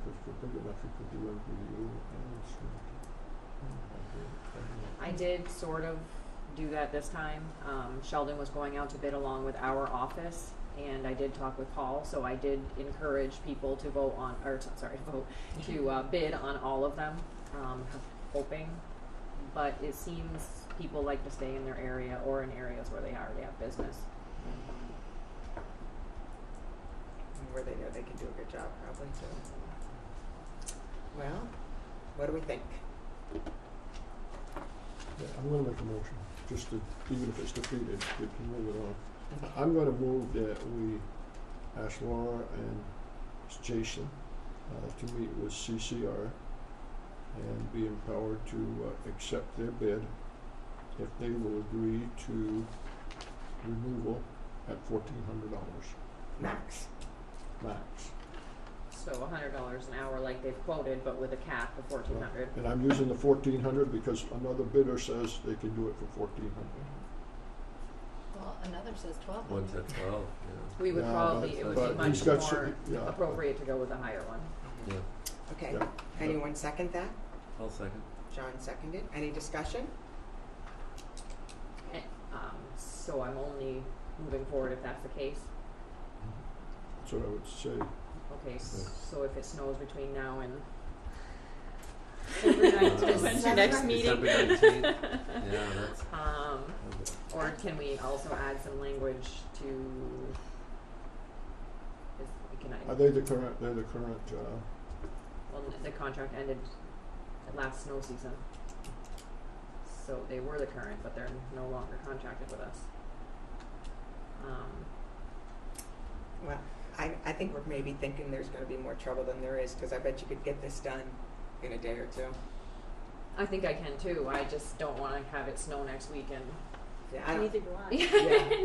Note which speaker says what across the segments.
Speaker 1: think about fifty local year and sure.
Speaker 2: I did sort of do that this time. Um, Sheldon was going out to bid along with our office, and I did talk with Paul, so I did encourage people to vote on, or t- sorry, vote, to uh, bid on all of them, um, hoping. But it seems people like to stay in their area or in areas where they already have business.
Speaker 3: And where they know they can do a good job, probably too. Well, what do we think?
Speaker 1: Yeah, I'm gonna make a motion, just to, even if it's defeated, we can move it on. I- I'm gonna move that we ask Laura and Jason uh, to meet with CCR and be empowered to uh, accept their bid if they will agree to removal at fourteen hundred dollars
Speaker 3: Max?
Speaker 1: max.
Speaker 2: So hundred dollars an hour like they've quoted, but with a cap of fourteen hundred.
Speaker 1: And I'm using the fourteen hundred because another bidder says they can do it for fourteen hundred.
Speaker 4: Well, another says twelve.
Speaker 5: One's at twelve, yeah.
Speaker 2: We would
Speaker 1: Yeah, but-
Speaker 2: probably, it would be
Speaker 5: but
Speaker 2: much
Speaker 5: he's
Speaker 2: more
Speaker 1: got cer- yeah.
Speaker 2: appropriate to go with the higher one.
Speaker 5: Yeah,
Speaker 3: Okay,
Speaker 1: Yeah.
Speaker 3: anyone second that?
Speaker 5: I'll second.
Speaker 3: John seconded. Any discussion?
Speaker 2: Eh, Um, so I'm only moving forward if that's the case.
Speaker 1: That's what I would say.
Speaker 2: Okay, s-
Speaker 5: Yeah.
Speaker 2: so if it snows between now and
Speaker 5: When's
Speaker 3: your next
Speaker 5: Uh, December nineteenth, yeah, that's,
Speaker 2: Um, or can we also add some language to? Is, can I?
Speaker 1: Are they the current, they're the current, uh,
Speaker 2: Well, the contract ended at last snow season. So they were the current, but they're no longer contracted with us. Um,
Speaker 3: Well, I, I think we're maybe thinking there's gonna be more trouble than there is, cause I bet you could get this done in a day or two.
Speaker 2: I think I can too. I just don't want to have it snow next weekend.
Speaker 3: Yeah, I don't,
Speaker 4: do
Speaker 3: Yeah,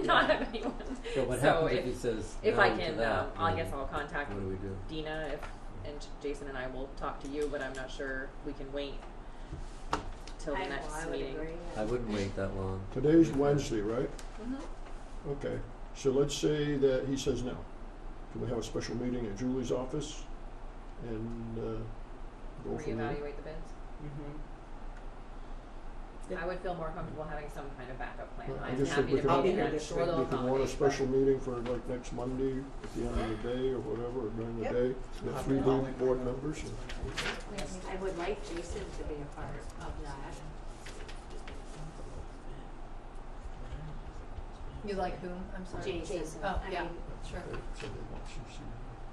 Speaker 2: not
Speaker 3: yeah.
Speaker 2: have anyone.
Speaker 5: so what
Speaker 2: So
Speaker 5: happens if
Speaker 2: if-
Speaker 5: he says no to that?
Speaker 2: If I can, um, I guess
Speaker 5: then
Speaker 2: I'll contact
Speaker 5: What do we do?
Speaker 2: Dina if, and Jason and I will talk to you, but I'm not sure we can wait till the next meeting.
Speaker 5: I wouldn't wait that long.
Speaker 1: today's Wednesday, right?
Speaker 4: Mhm.
Speaker 2: Mm-hmm.
Speaker 1: Okay, so let's say that he says no. Can we have a special meeting at Julie's office and, uh, go from there?
Speaker 2: Reevaluate the bids.
Speaker 3: mm-hmm.
Speaker 2: I would feel more comfortable having some kind of backup plan.
Speaker 1: Well, I
Speaker 2: I'm
Speaker 1: just think
Speaker 2: happy
Speaker 1: we
Speaker 2: to
Speaker 1: could
Speaker 3: all-
Speaker 2: be
Speaker 3: I'll be
Speaker 2: there.
Speaker 3: here
Speaker 2: I'm
Speaker 3: this
Speaker 2: sure
Speaker 3: week.
Speaker 2: they'll
Speaker 1: We can want a
Speaker 2: accommodate,
Speaker 1: special meeting for like next Monday at the end of the day or whatever, during the
Speaker 3: Yep.
Speaker 1: day, with three bo- board members and.
Speaker 4: I would like Jason to be a part of that.
Speaker 6: You like whom? I'm sorry.
Speaker 4: Jason,
Speaker 6: Oh,
Speaker 4: I
Speaker 6: yeah,
Speaker 4: mean,
Speaker 6: sure.
Speaker 1: Okay, so they want CC.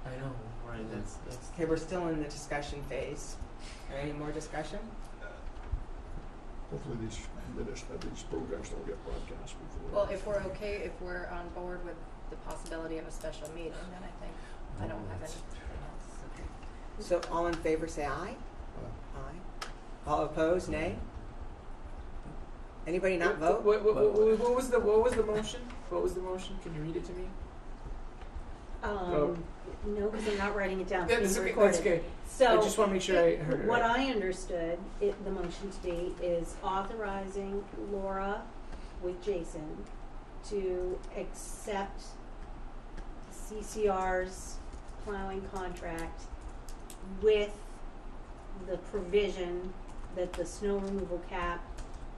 Speaker 7: I know, right, that's, that's.
Speaker 3: Okay, we're still in the discussion phase. Are any more discussion?
Speaker 1: Hopefully these minutes, uh, these programs don't get broadcast before.
Speaker 6: Well, if we're okay, if we're on board with the possibility of a special meeting, then I think I don't have anything else.
Speaker 3: Okay. So all in favor, say aye.
Speaker 1: Uh,
Speaker 3: Aye. All opposed, nay? Anybody not vote?
Speaker 7: What, what, what, what what was the, what was the motion? What was the motion? Can you read it to me?
Speaker 4: um, no, because I'm not writing it down,
Speaker 7: Yeah,
Speaker 4: it's
Speaker 7: Oh. that's
Speaker 4: being
Speaker 7: okay,
Speaker 4: recorded.
Speaker 7: that's good. I
Speaker 4: So.
Speaker 7: just wanna make sure I heard it
Speaker 4: What
Speaker 7: right.
Speaker 4: I understood, it, the motion to be is authorizing Laura with Jason to accept CCR's plowing contract with the provision that the snow removal cap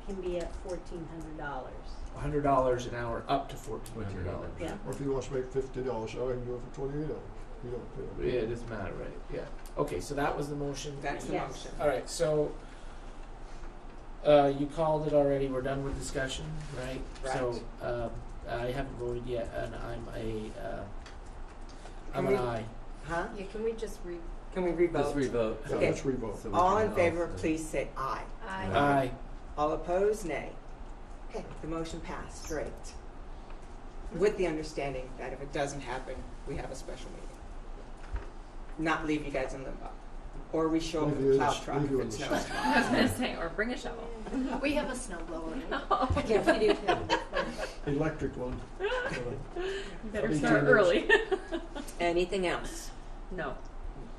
Speaker 4: can be at fourteen hundred dollars.
Speaker 7: A hundred dollars an hour, up to fourteen hundred dollars.
Speaker 5: $1,400.
Speaker 4: Yeah,
Speaker 1: Or if he wants to make fifty dollars, I can do it for twenty-eight dollars, you don't
Speaker 7: Yeah,
Speaker 1: pay.
Speaker 7: it doesn't matter, right, yeah. Okay, so that was the motion.
Speaker 3: That's the
Speaker 4: Yes.
Speaker 3: motion.
Speaker 7: Alright, so, uh, you called it already, we're done with discussion, right? So, um, I haven't voted yet, and I'm a, uh, I'm
Speaker 3: Can
Speaker 7: an
Speaker 3: we-
Speaker 7: aye.
Speaker 3: Huh?
Speaker 6: Yeah, can we just re,
Speaker 3: Can we
Speaker 5: Let's
Speaker 3: revote?
Speaker 5: revote.
Speaker 1: Yeah,
Speaker 3: Okay.
Speaker 1: let's revote.
Speaker 5: So we
Speaker 3: All
Speaker 5: can
Speaker 3: in favor,
Speaker 5: also-
Speaker 3: please say aye.
Speaker 6: I,
Speaker 5: Uh,
Speaker 7: Aye.
Speaker 3: All opposed, nay. Okay, the motion passed, great. With the understanding that if it doesn't happen, we have a special meeting. Not leave you guys in limbo. Or we show up
Speaker 1: Leave
Speaker 3: with
Speaker 1: you
Speaker 3: a
Speaker 1: in
Speaker 3: plow
Speaker 1: the s-
Speaker 3: truck
Speaker 1: leave
Speaker 3: if
Speaker 1: you
Speaker 3: it
Speaker 1: in the
Speaker 3: snows.
Speaker 1: s-
Speaker 2: I was gonna say, or bring a shovel.
Speaker 6: we have a snow blower. right?
Speaker 4: Yeah, we do have-
Speaker 1: Electric one. Uh,
Speaker 2: Better
Speaker 1: Me
Speaker 2: start
Speaker 1: too.
Speaker 2: early.
Speaker 3: Anything else?
Speaker 2: No,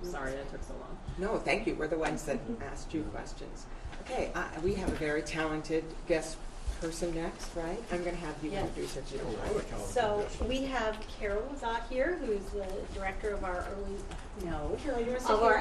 Speaker 2: sorry, that took so long.
Speaker 3: No, thank you, we're the ones that asked you questions. Okay, I- we have a very talented guest person next, right? I'm gonna have you
Speaker 4: Yes.
Speaker 3: introduce her to
Speaker 1: Oh, I
Speaker 3: you.
Speaker 1: like how it
Speaker 4: So
Speaker 1: does.
Speaker 4: we have Carol Zott here, who's the director of our early, no,
Speaker 3: Carol, you wanna sit
Speaker 4: of our
Speaker 3: here?